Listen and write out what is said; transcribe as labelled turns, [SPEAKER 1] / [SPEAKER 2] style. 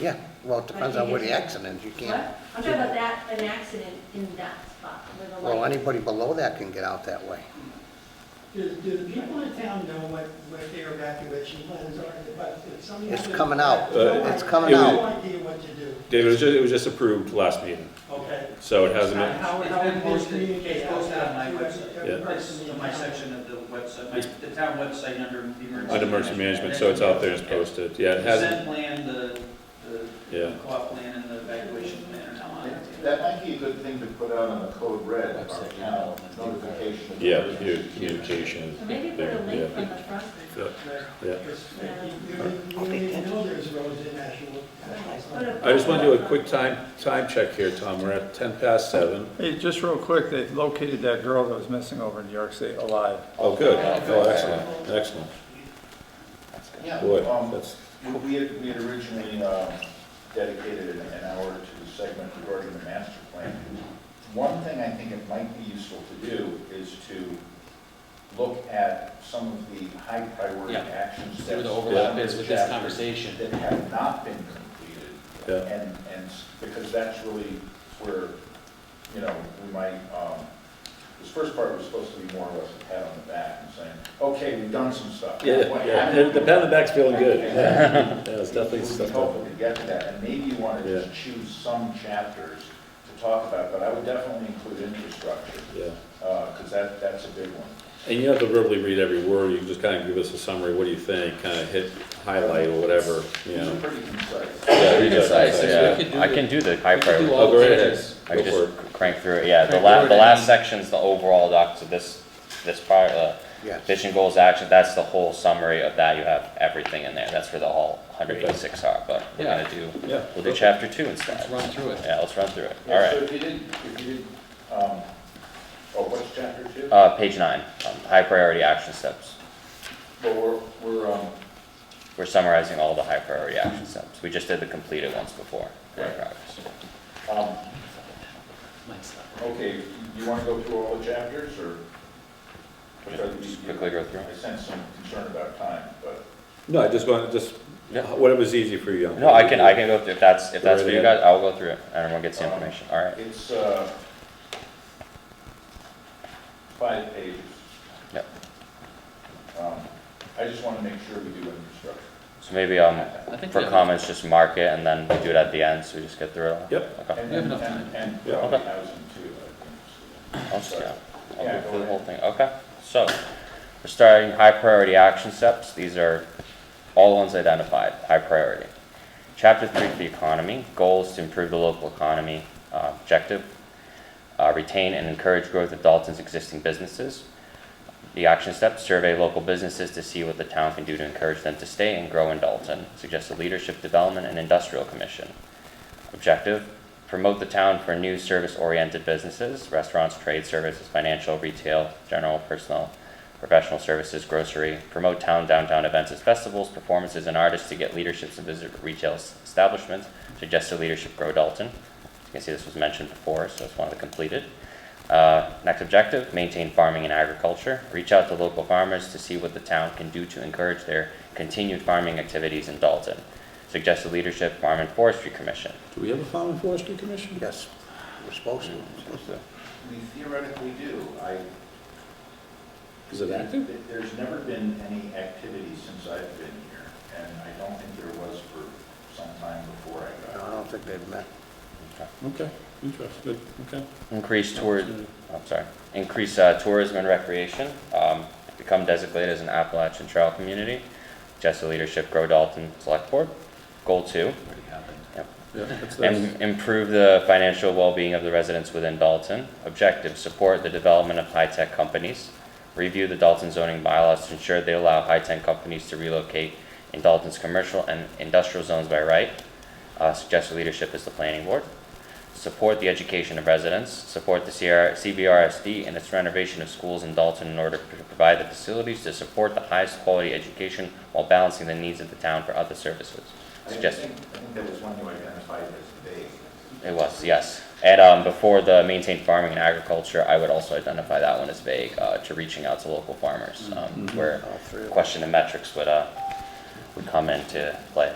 [SPEAKER 1] Yeah, well, it depends on where the accident, is. you
[SPEAKER 2] What?
[SPEAKER 1] can't,
[SPEAKER 2] I'm talking about that, an accident in that spot where the light.
[SPEAKER 1] well, anybody below that can get out that way.
[SPEAKER 3] Do, do the people in town know what, what their evacuation plans are? But if somebody-
[SPEAKER 1] It's coming out.
[SPEAKER 3] No
[SPEAKER 1] It's
[SPEAKER 3] idea-
[SPEAKER 1] coming
[SPEAKER 3] No
[SPEAKER 1] out.
[SPEAKER 3] idea what to do,
[SPEAKER 4] David, it was just, it was just approved last meeting,
[SPEAKER 3] okay?
[SPEAKER 4] so it hasn't been,
[SPEAKER 3] How,
[SPEAKER 5] It's
[SPEAKER 3] how
[SPEAKER 5] been
[SPEAKER 3] we
[SPEAKER 5] posted,
[SPEAKER 3] communicate.
[SPEAKER 5] it's posted on my
[SPEAKER 3] Every
[SPEAKER 5] website.
[SPEAKER 3] person
[SPEAKER 5] It's
[SPEAKER 3] in
[SPEAKER 5] in my
[SPEAKER 3] town.
[SPEAKER 5] section of the website, my, the town website under the emergency.
[SPEAKER 4] under emergency management, so it's out there, it's posted, yeah, it hasn't,
[SPEAKER 5] Consent plan, the,
[SPEAKER 4] Yeah.
[SPEAKER 5] the co-op plan and the evacuation plan are now on it.
[SPEAKER 6] That might be a good thing to put out on the code red, our town notification.
[SPEAKER 4] yeah, your communication.
[SPEAKER 2] So maybe put a link from the front.
[SPEAKER 4] Yeah. Yeah.
[SPEAKER 3] Because You you- you need to know there's roads in Nashua.
[SPEAKER 2] Put a-
[SPEAKER 4] I just want to do a quick time, time check here, Tom, we're at ten past seven.
[SPEAKER 7] Hey, just real quick, they located that girl that was missing over in New York State alive.
[SPEAKER 4] Oh, good, oh, excellent, excellent,
[SPEAKER 6] Yeah,
[SPEAKER 4] boy,
[SPEAKER 6] um,
[SPEAKER 4] that's,
[SPEAKER 6] we- we had, we had originally um, dedicated an- an hour to the segment regarding the master plan. One thing I think it might be useful to do is to look at some of the high priority
[SPEAKER 8] Yeah.
[SPEAKER 6] action steps.
[SPEAKER 8] See what the overlap
[SPEAKER 6] down
[SPEAKER 8] is
[SPEAKER 6] the
[SPEAKER 8] with this
[SPEAKER 6] chapter
[SPEAKER 8] conversation.
[SPEAKER 6] That have not been completed.
[SPEAKER 4] yeah.
[SPEAKER 6] And, and, s- because that's really where, you know, we might, um, this first part was supposed to be more or less a pat on the back and saying, okay, we've done some stuff. What happened?
[SPEAKER 4] pen and back's feeling good.
[SPEAKER 6] Yeah.
[SPEAKER 4] Yeah, it's
[SPEAKER 6] It would
[SPEAKER 4] definitely
[SPEAKER 6] be
[SPEAKER 4] stuff.
[SPEAKER 6] helpful to get to that, and maybe you want to
[SPEAKER 4] Yeah.
[SPEAKER 6] just choose some chapters to talk about, but I would definitely include infrastructure,
[SPEAKER 4] Yeah,
[SPEAKER 6] because that, that's a big one.
[SPEAKER 4] and you don't have to verbally read every word, you can just kind of give us a summary, what do you think, kind of hit highlight or whatever, you
[SPEAKER 6] These are
[SPEAKER 4] know.
[SPEAKER 6] pretty concise.
[SPEAKER 4] Yeah, you got that,
[SPEAKER 9] concise,
[SPEAKER 4] so,
[SPEAKER 9] so we
[SPEAKER 4] yeah.
[SPEAKER 9] could do the-
[SPEAKER 10] I can do the high
[SPEAKER 9] we could do
[SPEAKER 10] priority.
[SPEAKER 9] all
[SPEAKER 4] Oh, go
[SPEAKER 9] the
[SPEAKER 4] right
[SPEAKER 9] pages.
[SPEAKER 4] ahead.
[SPEAKER 10] I
[SPEAKER 4] Go
[SPEAKER 10] can
[SPEAKER 4] for it.
[SPEAKER 10] just crank through it, yeah, the
[SPEAKER 9] Crank
[SPEAKER 10] la,
[SPEAKER 9] through it
[SPEAKER 10] the
[SPEAKER 9] and
[SPEAKER 10] last
[SPEAKER 9] then-
[SPEAKER 10] section's the overall doc, so this, this part, uh,
[SPEAKER 1] Yes.
[SPEAKER 10] vision goals, action, that's the whole summary of that, you have everything in there, that's where the all hundred eighty-six are, but we're
[SPEAKER 9] Yeah.
[SPEAKER 10] gonna do,
[SPEAKER 4] Yeah,
[SPEAKER 10] we'll do
[SPEAKER 4] perfect.
[SPEAKER 10] chapter two instead.
[SPEAKER 9] Let's run through it.
[SPEAKER 10] Yeah, let's run through it,
[SPEAKER 6] Yeah, So
[SPEAKER 10] alright,
[SPEAKER 6] if you did, if you did, um, oh, what's chapter two?
[SPEAKER 10] uh, page nine, um, high priority action steps,
[SPEAKER 6] Well, we're, we're, um,
[SPEAKER 10] we're summarizing all the high priority action steps, we just did the completed ones before. Great
[SPEAKER 6] Right.
[SPEAKER 10] progress.
[SPEAKER 6] um,
[SPEAKER 9] Might stop.
[SPEAKER 6] Okay, you want to go through all the chapters, or?
[SPEAKER 10] Just quickly go through.
[SPEAKER 6] I sense some concern about time, but.
[SPEAKER 4] No, I just want, just,
[SPEAKER 10] Yeah.
[SPEAKER 4] whatever's easy for you.
[SPEAKER 10] No, I can, I can go through, if that's, if that's
[SPEAKER 4] Go right
[SPEAKER 10] for you
[SPEAKER 4] ahead.
[SPEAKER 10] guys, I'll go through it, and everyone gets the
[SPEAKER 6] um,
[SPEAKER 10] information, alright,
[SPEAKER 6] It's, uh, five pages.
[SPEAKER 10] Yep.
[SPEAKER 6] Um, I just want to make sure we do infrastructure.
[SPEAKER 10] so maybe, um,
[SPEAKER 9] I think
[SPEAKER 10] For
[SPEAKER 9] we have-
[SPEAKER 10] comments, just mark it and then we do it at the end, so we just get through it all?
[SPEAKER 4] Yep.
[SPEAKER 10] Okay,
[SPEAKER 6] And-
[SPEAKER 9] We have enough
[SPEAKER 6] and-
[SPEAKER 9] time.
[SPEAKER 6] And
[SPEAKER 4] Yeah.
[SPEAKER 6] probably
[SPEAKER 10] Okay.
[SPEAKER 6] housing too, I think. so.
[SPEAKER 10] I'll just, yeah, I'll
[SPEAKER 6] Yeah,
[SPEAKER 10] go
[SPEAKER 6] go
[SPEAKER 10] through the
[SPEAKER 6] ahead.
[SPEAKER 10] whole thing, okay. So, we're starting high priority action steps, these are all ones identified, high priority. Chapter three for the economy, goals to improve the local economy, uh, objective, uh, retain and encourage growth of Dalton's existing businesses. The action steps, survey local businesses to see what the town can do to encourage them to stay and grow in Dalton. Suggest a leadership development and industrial commission. Objective, promote the town for new service-oriented businesses, restaurants, trade services, financial, retail, general, personal, professional services, grocery. Promote town downtown events as festivals, performances, and artists to get leaderships and visit retail s- establishments. Suggest a leadership grow Dalton. You can see this was mentioned before, so it's one of the completed. Uh, Next objective, maintain farming and agriculture. Reach out to local farmers to see what the town can do to encourage their continued farming activities in Dalton. Suggest a leadership farm and forestry commission.
[SPEAKER 4] Do we have a farm and forestry commission?
[SPEAKER 1] Yes, we're supposed to.
[SPEAKER 6] We theoretically do. I,
[SPEAKER 4] Is it
[SPEAKER 9] Hmm.
[SPEAKER 4] active?
[SPEAKER 6] Th- There's never been any activity since I've been here, and I don't think there was for some time before I
[SPEAKER 1] No,
[SPEAKER 6] got
[SPEAKER 1] I
[SPEAKER 6] here.
[SPEAKER 1] don't think they've met.
[SPEAKER 4] Okay, interesting, good, okay.
[SPEAKER 10] Increase tour, I'm sorry, increase uh, tourism and recreation. Um, Become designated as an Appalachian Trail community. Suggest a leadership grow Dalton Select Board. Goal two,
[SPEAKER 9] Already happened.
[SPEAKER 4] Yeah, that's, that's,
[SPEAKER 10] Im- Improve the financial well-being of the residents within Dalton. Objective, support the development of high-tech companies. Review the Dalton zoning bylaws to ensure they allow high-tech companies to relocate in Dalton's commercial and industrial zones by right. Uh, Suggested leadership is the planning board. Support the education of residents. Support the CR CBRSD and its renovation of schools in Dalton in order to provide the facilities to support the highest quality education while balancing the needs of the town for other services.
[SPEAKER 6] I
[SPEAKER 10] Suggest-
[SPEAKER 6] think, I think that was one you identified as vague.
[SPEAKER 10] it was, yes. And um, before the maintain farming and agriculture, I would also identify that one as vague uh, to reaching out to local farmers, um, where
[SPEAKER 1] All three of them.
[SPEAKER 10] question of metrics would uh, would come into play.